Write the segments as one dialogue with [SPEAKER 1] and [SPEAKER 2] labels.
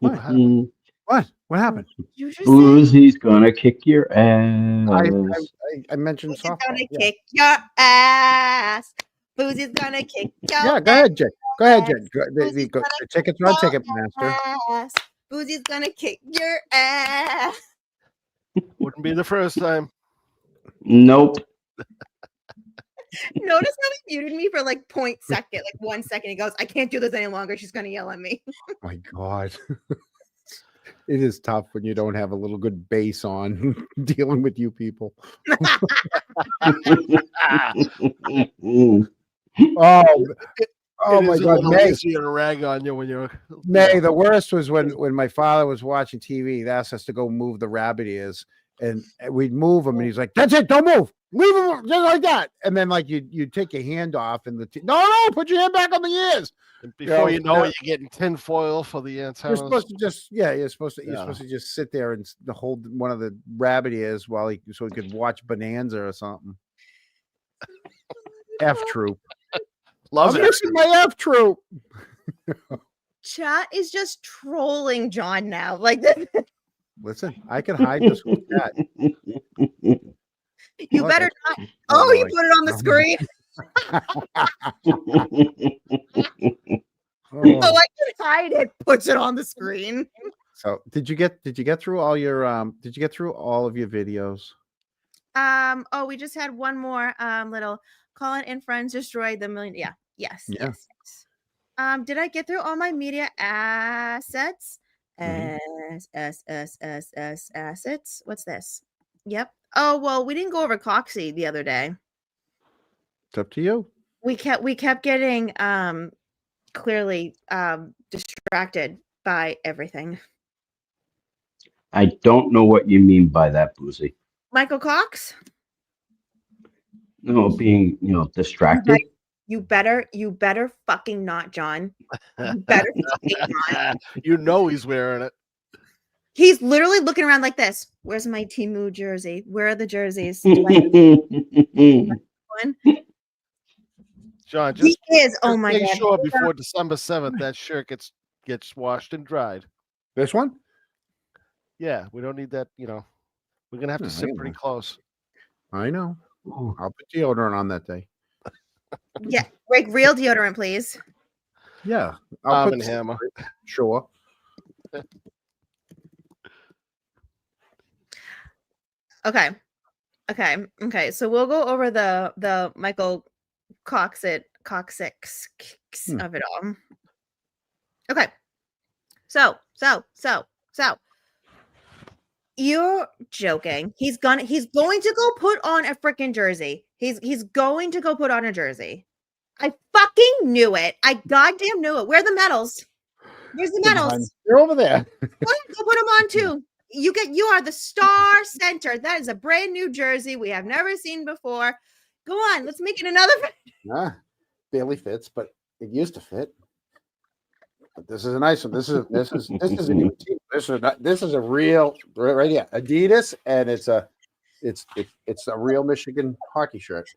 [SPEAKER 1] What? How- What? What happened?
[SPEAKER 2] You just said
[SPEAKER 3] Booze, he's gonna kick your ass.
[SPEAKER 1] I, I, I- I mentioned
[SPEAKER 2] Boozy's gonna
[SPEAKER 1] softball. Yeah.
[SPEAKER 2] kick your ass. Boozy's gonna kick your
[SPEAKER 1] yeah, go ahead, Jay. Go ahead, Jay.
[SPEAKER 2] ass.
[SPEAKER 1] Go- The,
[SPEAKER 2] Boozy's
[SPEAKER 1] the, go-
[SPEAKER 2] gonna
[SPEAKER 1] the tickets are on
[SPEAKER 2] your
[SPEAKER 1] Ticketmaster.
[SPEAKER 2] ass. Boozy's gonna kick your ass.
[SPEAKER 4] Wouldn't be the first time.
[SPEAKER 3] Nope.
[SPEAKER 2] Notice how he muted me for like point second, like one second. He goes, I can't do this any longer. She's gonna yell at me.
[SPEAKER 1] My God. It is tough when you don't have a little good base on dealing with you people. Oh, oh
[SPEAKER 4] It
[SPEAKER 1] my
[SPEAKER 4] is
[SPEAKER 1] God,
[SPEAKER 4] a little
[SPEAKER 1] May,
[SPEAKER 4] easier to rag on you when you're
[SPEAKER 1] May. The worst was when when my father was watching TV. He asked us to go move the rabbit ears, and we'd move him, and he's like, "That's it, don't move, leave him just like that." And then like you you take your hand off, and the t- no no, put your hand back on the ears.
[SPEAKER 4] Before
[SPEAKER 1] Yeah,
[SPEAKER 4] you know
[SPEAKER 1] yeah.
[SPEAKER 4] it, you're getting tin foil for the
[SPEAKER 1] You're
[SPEAKER 4] antennas.
[SPEAKER 1] supposed to just yeah, you're supposed to you're
[SPEAKER 4] Yeah.
[SPEAKER 1] supposed to just sit there and s- the hold one of the rabbit ears while he so he could watch Bonanza or something. F troop.
[SPEAKER 4] Love
[SPEAKER 1] I'm
[SPEAKER 4] it.
[SPEAKER 1] missing my F troop.
[SPEAKER 2] Chat is just trolling John now. Like this,
[SPEAKER 1] Listen, I can hide this with that.
[SPEAKER 2] you
[SPEAKER 1] Look,
[SPEAKER 2] better
[SPEAKER 1] it's-
[SPEAKER 2] not. Oh, you
[SPEAKER 1] like-
[SPEAKER 2] put it on the
[SPEAKER 1] I'm-
[SPEAKER 2] screen. Oh,
[SPEAKER 1] Oh.
[SPEAKER 2] I can hide it. Puts it on the screen.
[SPEAKER 1] So did you get did you get through all your um did you get through all of your videos?
[SPEAKER 2] Um, oh, we just had one more um little Colin and Friends destroyed the million. Yeah, yes,
[SPEAKER 1] Yeah.
[SPEAKER 2] yes, yes. Um, did I get through all my media assets?
[SPEAKER 1] Mhm.
[SPEAKER 2] S S S S S assets. What's this? Yep. Oh well, we didn't go over Coxie the other day.
[SPEAKER 1] It's up to you.
[SPEAKER 2] We kept we kept getting um clearly um distracted by everything.
[SPEAKER 3] I don't know what you mean by that, Boozy.
[SPEAKER 2] Michael Cox,
[SPEAKER 3] No, being you know distracted.
[SPEAKER 2] Like- you better you better fucking not, John. You better fucking not.
[SPEAKER 4] you know he's wearing it.
[SPEAKER 2] He's literally looking around like this. Where's my Timu jersey? Where are the jerseys? Do I have one?
[SPEAKER 4] John, just
[SPEAKER 2] He is. Oh my
[SPEAKER 4] make
[SPEAKER 2] god.
[SPEAKER 4] sure before December 7th that shirt gets gets washed and dried.
[SPEAKER 1] This one?
[SPEAKER 4] Yeah, we don't need that, you know. We're gonna have
[SPEAKER 1] No,
[SPEAKER 4] to sit
[SPEAKER 1] hang
[SPEAKER 4] pretty
[SPEAKER 1] on.
[SPEAKER 4] close.
[SPEAKER 1] I know. I'll put deodorant on that day.
[SPEAKER 2] Yeah, like real deodorant, please.
[SPEAKER 1] Yeah. I'll
[SPEAKER 4] Arm
[SPEAKER 1] put
[SPEAKER 4] and hammer.
[SPEAKER 1] sure.
[SPEAKER 2] Okay. Okay. Okay. So we'll go over the the Michael Coxit Coxix
[SPEAKER 1] Hmm.
[SPEAKER 2] of it all. Okay. So, so, so, so you're joking. He's gonna he's going to go put on a freaking jersey. He's he's going to go put on a jersey. I fucking knew it. I goddamn knew it. Where are the medals? Where's the
[SPEAKER 1] They're
[SPEAKER 2] medals?
[SPEAKER 1] behind- They're over there.
[SPEAKER 2] Go ahead, go put them on too. You get you are the star center. That is a brand new jersey we have never seen before. Go on, let's make it another.
[SPEAKER 1] Nah, barely fits, but it used to fit. But this is a nice one. This is this is this is a new team. This is not, this is a real right, right here Adidas, and it's a it's it, it's a real Michigan hockey shirt.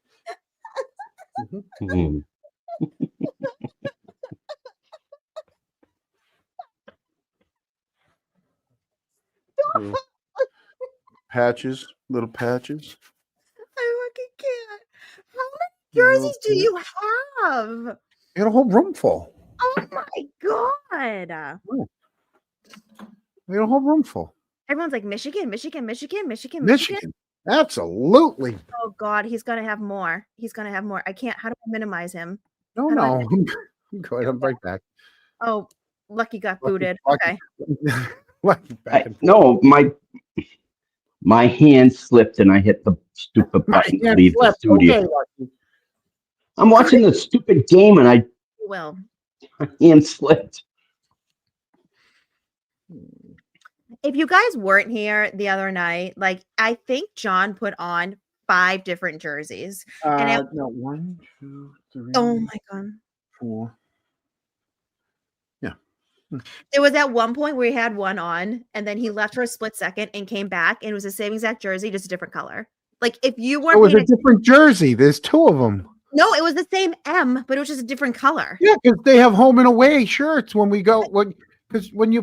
[SPEAKER 1] Patches, little patches.
[SPEAKER 2] I fucking can't. How many jerseys do you have?
[SPEAKER 1] You got a whole room full.
[SPEAKER 2] Oh my
[SPEAKER 1] You
[SPEAKER 2] god!
[SPEAKER 1] got a whole room full.
[SPEAKER 2] Everyone's like Michigan, Michigan, Michigan, Michigan, Michigan.
[SPEAKER 1] Michigan, absolutely.
[SPEAKER 2] Oh god, he's gonna have more. He's gonna have more. I can't. How do I minimize him?
[SPEAKER 1] No,
[SPEAKER 2] I
[SPEAKER 1] no.
[SPEAKER 2] like
[SPEAKER 1] I'm good. I'm right back.
[SPEAKER 2] Oh, Lucky got
[SPEAKER 1] Lucky-
[SPEAKER 2] booted.
[SPEAKER 1] Lucky-
[SPEAKER 2] Okay.
[SPEAKER 1] Right
[SPEAKER 3] I-
[SPEAKER 1] back and
[SPEAKER 3] no, my my hand slipped and I hit the stupid button to
[SPEAKER 1] Yeah,
[SPEAKER 3] leave the
[SPEAKER 1] left.
[SPEAKER 3] studio.
[SPEAKER 1] Okay, Lucky.
[SPEAKER 3] I'm watching the stupid game and I
[SPEAKER 2] you Will.
[SPEAKER 3] hand slipped.
[SPEAKER 2] if you guys weren't here the other night, like I think John put on five different jerseys. And I-
[SPEAKER 1] Uh, no, one, two, three,
[SPEAKER 2] Oh my god.
[SPEAKER 1] four.
[SPEAKER 2] There was at one point where he had one on and then he left for a split second and came back and it was the same exact jersey, just a different color. Like if you
[SPEAKER 1] It
[SPEAKER 2] weren't
[SPEAKER 1] was
[SPEAKER 2] paying
[SPEAKER 1] Oh, a
[SPEAKER 2] attention,
[SPEAKER 1] different jersey. There's two of them.
[SPEAKER 2] no, it was the same M, but it was just a different color.
[SPEAKER 1] Yeah, because they have home and away shirts when we go when because when you